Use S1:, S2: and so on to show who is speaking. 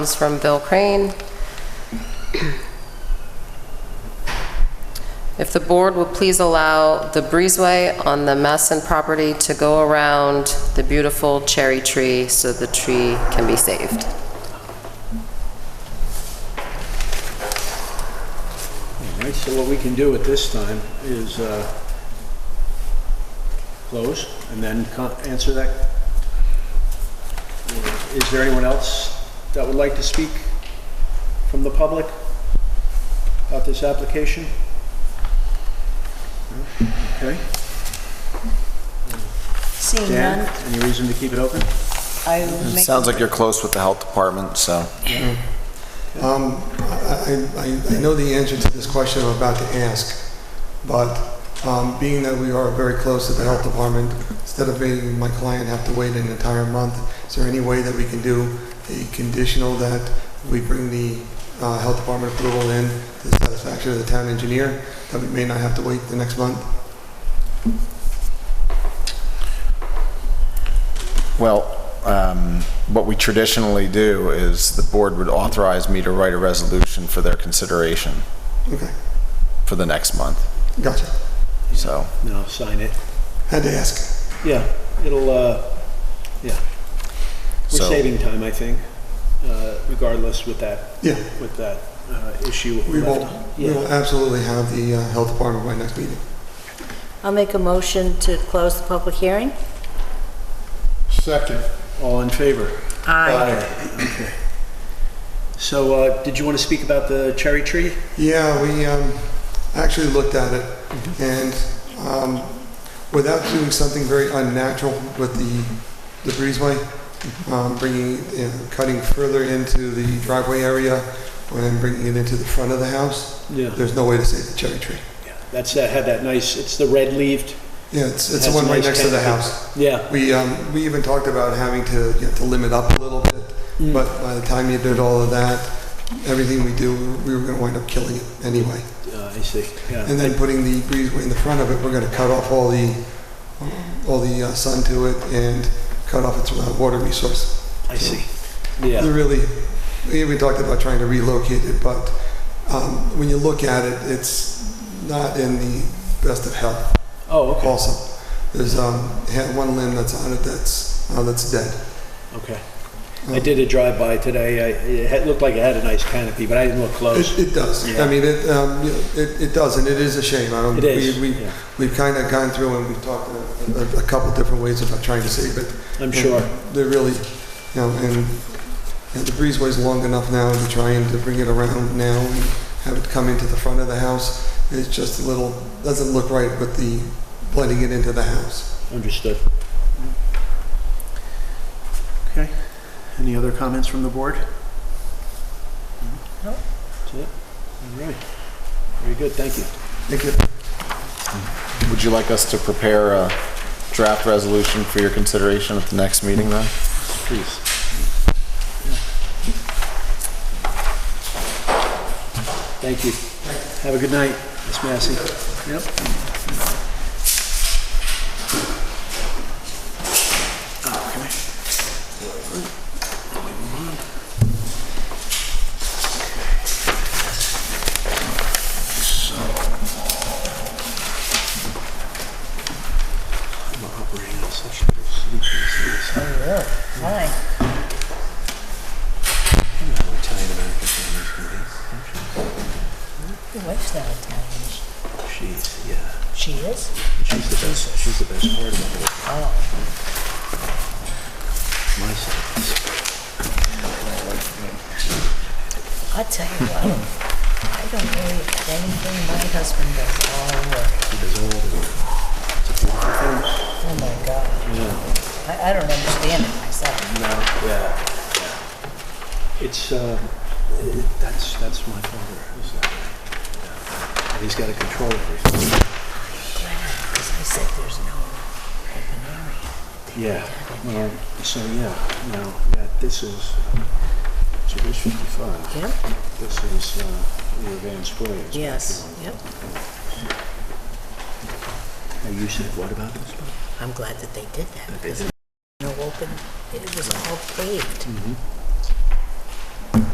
S1: Comes from Bill Crane. If the board would please allow the breezeway on the Masson property to go around the beautiful cherry tree so the tree can be saved.
S2: All right, so what we can do at this time is uh, close and then co- answer that. Is there anyone else that would like to speak from the public about this application? No? Okay.
S3: Seeing
S2: Dan,
S3: none,
S2: any reason to keep it open?
S3: I will
S4: It
S3: make...
S4: sounds like you're close with the health department, so.
S5: Um, I, I, I know the answer to this question I'm about to ask, but, um, being that we are very close to the health department, instead of making my client have to wait an entire month, is there any way that we can do a conditional that we bring the, uh, health department approval in to the satisfaction of the town engineer, that we may not have to wait the next month?
S4: Well, um, what we traditionally do is the board would authorize me to write a resolution for their consideration
S5: Okay,
S4: for the next month,
S5: gotcha.
S4: so.
S2: No, sign it.
S5: Had to ask.
S2: Yeah, it'll, uh, yeah. We're
S4: So-
S2: saving time, I think, uh, regardless with that,
S5: Yeah,
S2: with that uh, issue.
S5: we will,
S2: left.
S5: we will
S2: Yeah.
S5: absolutely have the, uh, health department by next meeting.
S3: I'll make a motion to close the public hearing.
S5: Second.
S2: All in favor?
S3: Aye.
S2: Okay. So, uh, did you want to speak about the cherry tree?
S5: Yeah, we um, actually looked at it, and um, without doing something very unnatural with the the breezeway, um, bringing, you know, cutting further into the driveway area, and bringing it into the front of the house,
S2: Yeah.
S5: there's no way to save the cherry tree.
S2: That's, that had that nice, it's the red leaved,
S5: Yeah, it's it's
S2: Has
S5: the one right
S2: nice
S5: next to the
S2: canopy.
S5: house.
S2: yeah.
S5: We um, we even talked about having to, you know, to limit up a little bit, but by the time you did all of that, everything we do, we were going to wind up killing it anyway.
S2: Uh, I see, yeah.
S5: And then putting the breezeway in the front of it, we're gonna cut off all the, all the uh, sun to it and cut off its uh, water resource.
S2: I see, yeah.
S5: They're really, we even talked about trying to relocate it, but um, when you look at it, it's not in the best of health
S2: Oh, okay,
S5: also. There's um, ha- one limb that's on it that's, uh, that's dead.
S2: okay. I did a drive-by today, I, it had- looked like it had a nice canopy, but I didn't look
S5: It,
S2: close.
S5: it does. I
S2: Oh. Yeah.
S5: mean, it, um, you know, it, it does, and it is a shame. I don't,
S2: It is,
S5: we, we,
S2: yeah.
S5: we've kind of gone through and we've talked a, a- a couple different ways about trying to save it.
S2: I'm sure,
S5: They're really, you know, and you know, the breezeway's long enough now to try and to bring it around now and have it come into the front of the house. It's just a little, doesn't look right with the blending it into the house.
S2: understood. Okay, any other comments from the board?
S3: No.
S2: That's it? All right, very good, thank you.
S5: Thank you.
S4: Would you like us to prepare a draft resolution for your consideration at the next meeting then?
S2: Please. Thank you. Have a good night, Ms. Massey. Yep. I'm operating on such a sleepy sleep.
S3: Aye. Your wife's not Italian.
S2: She's, yeah,
S3: She is?
S2: she's the best, she's the best part of the whole,
S3: Oh.
S2: my side.
S3: i tell you what, I don't believe anything my husband does all work.
S2: She does all the work. It's a beautiful thing.
S3: Oh, my God.
S2: Yeah.
S3: I I don't understand it myself.
S2: No, yeah, yeah. It's, uh, it- that's, that's my father, is that right? Yeah. And he's gotta control everything.
S3: Because I said there's no open area.
S2: Yeah, well, so, yeah, now, yeah, this is, so here's fifty-five.
S3: Yep,
S2: This is, uh, the Van Squares.
S3: yes, yep.
S2: And you said, what about this one?
S3: I'm glad that they did that because no open, it was all paved.